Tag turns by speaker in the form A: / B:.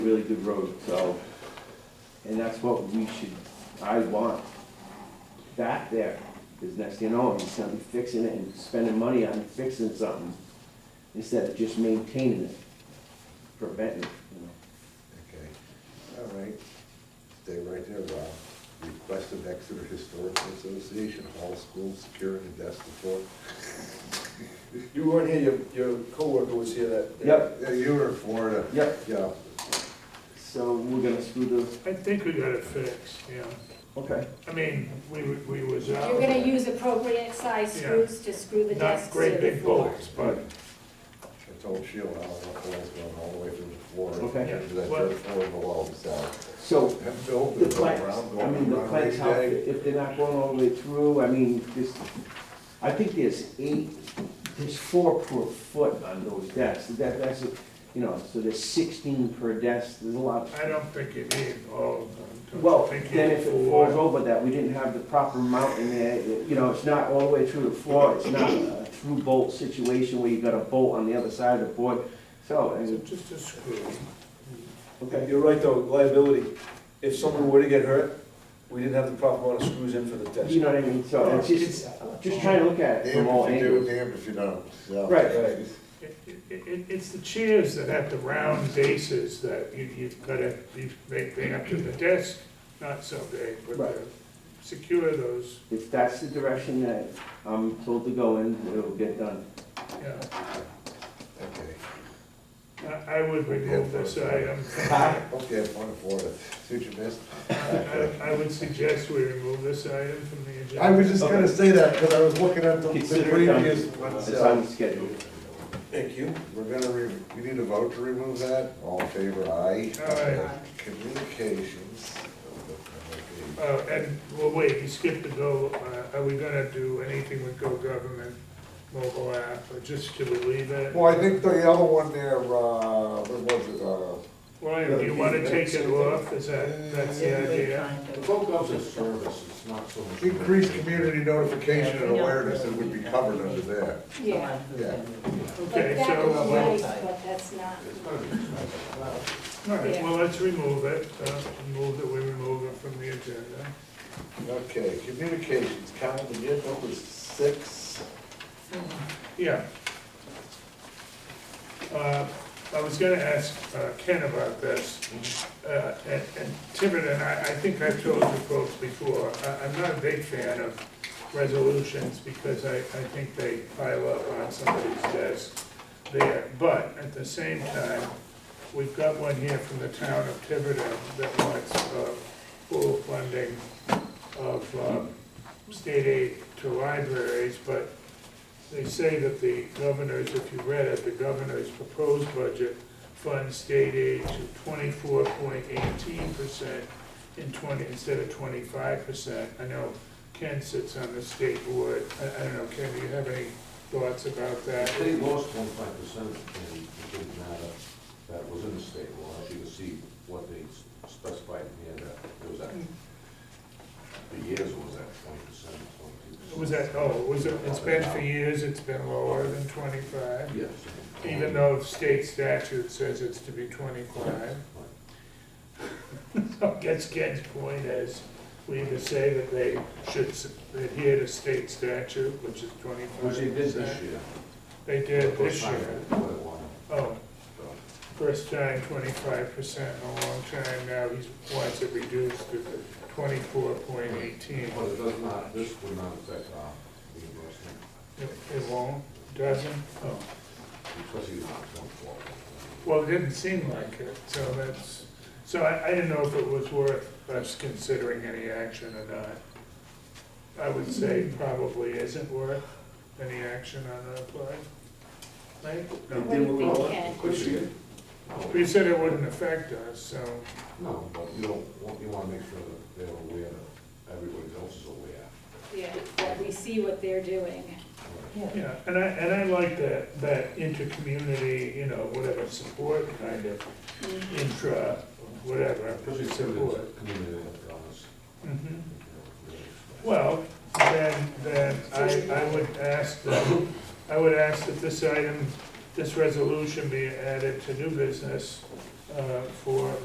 A: really good road, so, and that's what we should, I want. Back there, because next thing you know, he's gonna be fixing it and spending money on fixing something, instead of just maintaining it, preventing it, you know.
B: Okay, all right, stay right there, Rob. Request of Exeter Historical Association, Hall School, securing the desk before.
C: You weren't here, your, your coworker was here that. that-
A: Yep.
B: Yeah, you were in Florida.
A: Yep.
B: Yeah,
A: So we're gonna screw those,
D: I think we got it fixed, yeah.
A: okay.
D: I mean, we, w- we was out.
E: You're gonna use appropriate size
D: Yeah.
E: screws to screw the desks
D: Not
E: to
D: great
E: the
D: big
E: floor.
D: bolts, but,
B: I told Sheila, I don't know if it's going all the way through the floor.
A: Okay.
D: Yeah.
B: Into that third floor of the wall, so.
A: So,
B: That building
A: the
B: is
A: planks,
B: around,
A: I mean,
B: going
A: the
B: around
A: planks,
B: every
A: how,
B: day.
A: if they're not going all the way through, I mean, this, I think there's eight, there's four per foot on those desks, that, that's, you know, so there's sixteen per desk, there's a lot.
D: I don't think you need all of them. Don't you
A: Well,
D: think you
A: then if it
D: need
A: falls
D: four?
A: over that, we didn't have the proper mount in there, it- you know, it's not all the way through the floor, it's not a through bolt situation where you've got a bolt on the other side of the board, so, and,
D: It's Just a screw.
A: okay.
C: You're right though, liability. If someone were to get hurt, we didn't have the proper amount of screws in for the desk.
A: You know what I mean, so it's just, just trying to look at it from all
B: Damned if you do,
A: angles.
B: damned if you don't, so.
A: Right.
C: Right.
D: It, it- it, it's the chairs that have the round bases that you, you've gotta, you make big up to the desk, not so big, but
A: Right.
D: uh, secure those,
A: If that's the direction that I'm told to go in, it'll get done.
D: yeah.
B: Okay,
D: I, I would remove this item.
A: Huh?
B: okay, I'm on Florida, see what you missed?
D: I, I would suggest we remove this item from the agenda.
B: I was just gonna say that, because I was looking at the the
A: Consider it done.
B: previous ones.
A: It's
B: so-
A: on the schedule.
C: Thank you.
B: We're gonna re, we need a vote to remove that, all in favor, aye.
D: Aye.
B: Communications.
D: Uh, and, well, wait, you skipped the go, uh, are we gonna do anything with Go Government mobile app, or just should we leave it?
B: Well, I think the other one there, uh, what was it, uh?
D: Why, do you wanna take it off, is that, that's the idea?
F: Vocals is service, it's not so much.
B: Increased community notification and awareness, it would be covered under that.
E: Yeah,
B: Yeah.
E: but
D: Okay,
E: that
D: so, uh,
E: would be
D: well,
E: nice, but that's not,
D: all right, well, let's remove it, uh, move that we remove it from the agenda.
B: Okay, communications, calendar year number six.
D: Yeah. Uh, I was gonna ask uh, Ken about this, Uh, and and Tibbet, and I, I think I've told you folks before, I- I'm not a big fan of resolutions because I, I think they pile up on somebody's desk there. But at the same time, we've got one here from the town of Tiverton that wants uh, full funding of um, state aid to libraries, but they say that the governor's, if you read it, the governor's proposed budget funds state aid to twenty-four point eighteen percent in twenty, instead of twenty-five percent. I know Ken sits on the state board, I, I don't know, Ken, do you have any thoughts about
F: The
D: that?
F: state lost one five percent in the big matter that was in the state law, as you can see what they specified here, that it was at, the years was at twenty percent, twenty-two percent.
D: Was that, oh, was it, it's been for years, it's been lower than twenty-five,
F: Yes. Um,
D: even though state statute says it's to be twenty-five.
F: Right.
D: I guess Ken's point is, we either say that they should s- adhere to state statute, which is twenty-five.
F: Which they did this year.
D: They did this year.
F: Quite a while,
D: Oh,
F: so.
D: first time twenty-five percent in a long time, now he wants it reduced to twenty-four point eighteen.
F: But it does not, this would not affect our reimbursement,
D: It it won't, doesn't? Oh.
F: because he's not twenty-four.
D: Well, it didn't seem like it, so that's, so I, I didn't know if it was worth us considering any action or not. I would say probably isn't worth any action on that play. Right?
E: what do you think, Ken?
D: We said it wouldn't affect us, so,
F: No, but you don't, want- you wanna make sure that they're aware, that everybody else is aware.
E: Yeah, that we see what they're doing.
D: yeah, and I, and I like that, that inter-community, you know, whatever, support kind of, intra, whatever,
F: Especially
D: support.
F: citizens, community, us.
D: Mhm.
F: uh,
D: Well, then, then I, I would ask, that- I would ask that this item, this resolution be added to new business uh, for